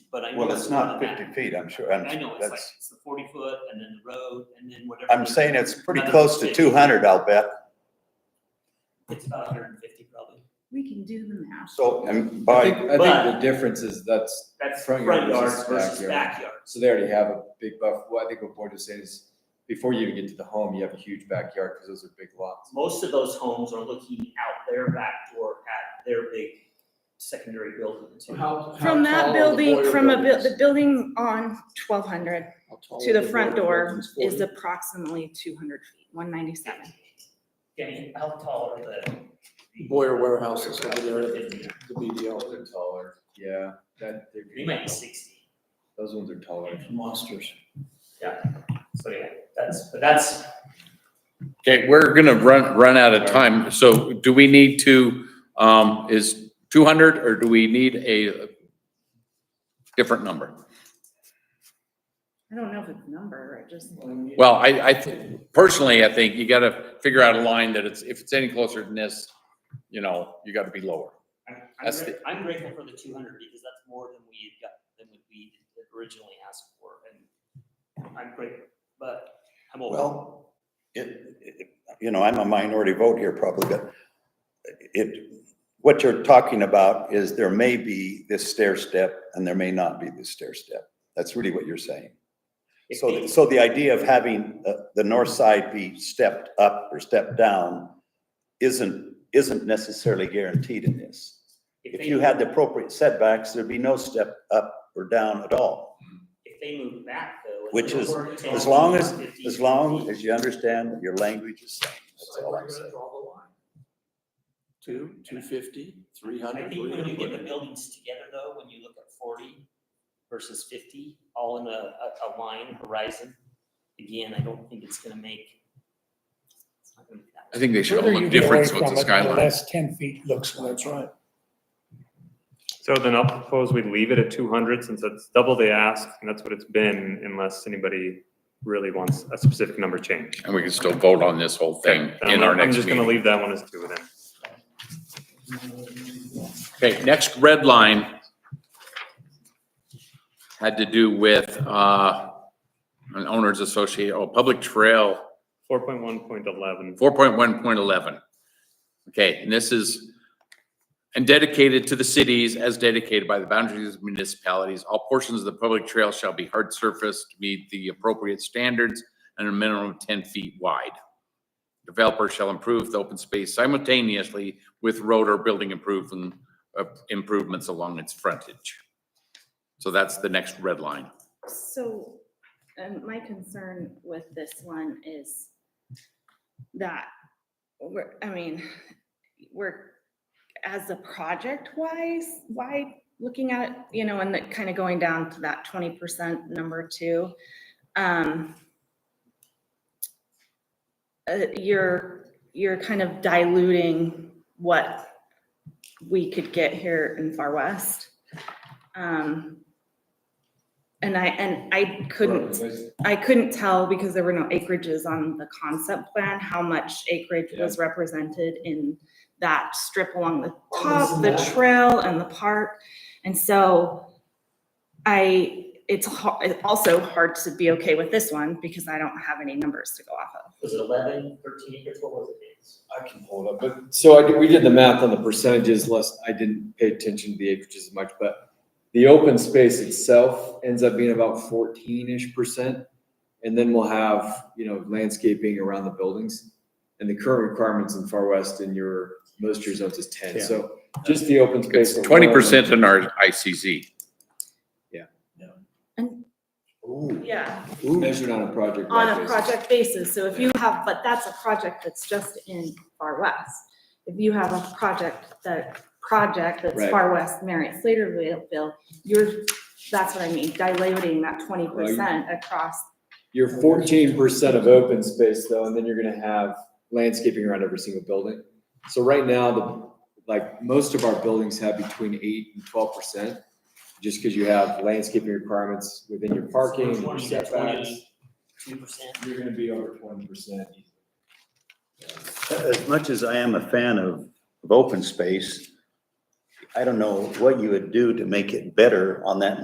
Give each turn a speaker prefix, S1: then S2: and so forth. S1: but I know.
S2: Well, it's not
S1: more than
S2: fifty
S1: that.
S2: feet, I'm sure, I'm,
S1: I know, it's like,
S2: that's,
S1: it's the forty foot and then the road and then whatever.
S2: I'm saying it's pretty
S1: another
S2: close to
S1: 50.
S2: two hundred, I'll bet.
S1: It's about hundred and fifty probably.
S3: We can do the math.
S2: So, and
S4: I
S2: by,
S4: think, I think the
S1: But-
S4: difference is that's,
S1: That's
S4: Front
S1: front
S4: yard
S1: yards
S4: versus
S1: versus
S4: backyard.
S1: backyard.
S4: so they already have a big buff, well, I think what Boyd was saying is, before you even get to the home, you have a huge backyard, because those are big lots.
S1: Most of those homes are looking out their back door at their big secondary building. too.
S5: How- how
S3: From
S5: tall are
S3: that
S5: the
S3: building,
S5: boiler
S3: from a, buil-
S5: buildings?
S3: the building on twelve hundred
S5: How tall
S3: to
S5: are
S3: the front
S5: boiler
S3: door
S5: buildings?
S3: is
S5: 40?
S3: approximately two hundred feet, one ninety-seven.
S1: Danny, how tall are the?
S5: Boyer warehouses over there.
S1: Fifty.
S5: The BDL.
S4: Those are taller, yeah, that, they're,
S1: They might be sixty.
S4: those ones are taller.
S5: Monsters.
S1: So yeah, that's, but that's,
S6: Okay, we're gonna run, run out of time, so do we need to, um, is two hundred, or do we need a different number?
S3: I don't know if it's number, I just.
S6: Well, I, I, thi- personally, I think you gotta figure out a line that it's, if it's any closer than this, you know, you gotta be lower.
S1: I'm, I'm
S6: That's
S1: gra- I'm grateful for the two hundred because that's more than we had got, than what we had originally asked for and I'm grateful, but I'm old.
S2: well, it, it, you know, I'm a minority vote here probably, but it, what you're talking about is there may be this stair step and there may not be this stair step. That's really what you're saying.
S1: If
S2: So,
S1: they-
S2: th- so the idea of having uh, the north side be stepped up or stepped down isn't, isn't necessarily guaranteed in this. If
S1: they
S2: you had the appropriate setbacks, there'd be no step up or down at all.
S1: If they move back though. and
S2: Which
S1: they
S2: is-
S1: were to
S2: as long
S1: take
S2: as-
S1: 50,
S2: As long
S1: 60,
S2: as you understand what your language is saying, that's
S5: So
S2: all
S5: we're
S2: I'm
S5: gonna
S2: saying.
S5: draw the line. Two, two fifty, three
S1: I
S5: hundred.
S1: think when you get the buildings together though, when you look at forty versus fifty, all in a, a, a line horizon, again, I don't think it's gonna make. it's not gonna be that
S6: I think they should all
S7: Further
S6: look
S7: you get
S6: different,
S7: away
S6: so it's a
S7: from it, the
S6: skyline.
S7: Less ten feet looks like.
S5: That's right.
S8: So then I'll propose we leave it at two hundred since that's double the ask and that's what it's been unless anybody really wants a specific number change.
S6: And we can still vote on this whole thing in our
S8: I'm
S6: next
S8: just gonna
S6: meeting.
S8: leave that one as two then.
S6: Okay, next red line had to do with, uh, an owners associate, oh, public trail
S8: Four point one point eleven.
S6: four point one point eleven. Okay, and this is, and dedicated to the cities as dedicated by the boundaries of municipalities, all portions of the public trail shall be hard surfaced, to meet the appropriate standards and a minimum of ten feet wide. Developers shall improve the open space simultaneously with road or building improvement, uh, improvements along its frontage. So that's the next red line.
S3: So, um, my concern with this one is that, we're, I mean, we're, as a project wise, why, looking at, you know, and that kind of going down to that twenty percent number two, um, uh, you're, you're kind of diluting what we could get here in Far West. Um, and I, and I couldn't I couldn't tell because there were no acreages on the concept plan, how much acreage was represented in that strip along the top, the trail and the park. And so I, it's ho- it's also hard to be okay with this one because I don't have any numbers to go off of.
S1: Was it eleven, thirteen acres? What was it? It's-
S4: I can pull it up, but, so I, did- we did the math on the percentages, less, I didn't pay attention to the acreages as much, but the open space itself ends up being about fourteen-ish percent. And then we'll have, you know, landscaping around the buildings. And the current requirements in Far West in your, most of your zones is ten, so just the open space.
S6: It's twenty percent in our ICZ.
S3: And,
S2: Ooh,
S3: yeah,
S4: alone, Measured on a project.
S3: on a
S4: basis.
S3: project basis. So if you have, but that's a project that's just in Far West. If you have a project that, project that's
S4: Right.
S3: Far West, Marriott Slaterville, you're, that's what I mean, dilating that twenty percent across.
S4: You're fourteen percent of open space though, and then you're gonna have landscaping around every single building. So right now, the, like, most of our buildings have between eight and twelve percent. Just because you have landscaping requirements within your parking, your
S1: 20 to
S4: setbacks,
S1: 22 percent.
S4: you're gonna be over twenty percent.
S2: As much as I am a fan of, of open space, I don't know what you would do to make it better on that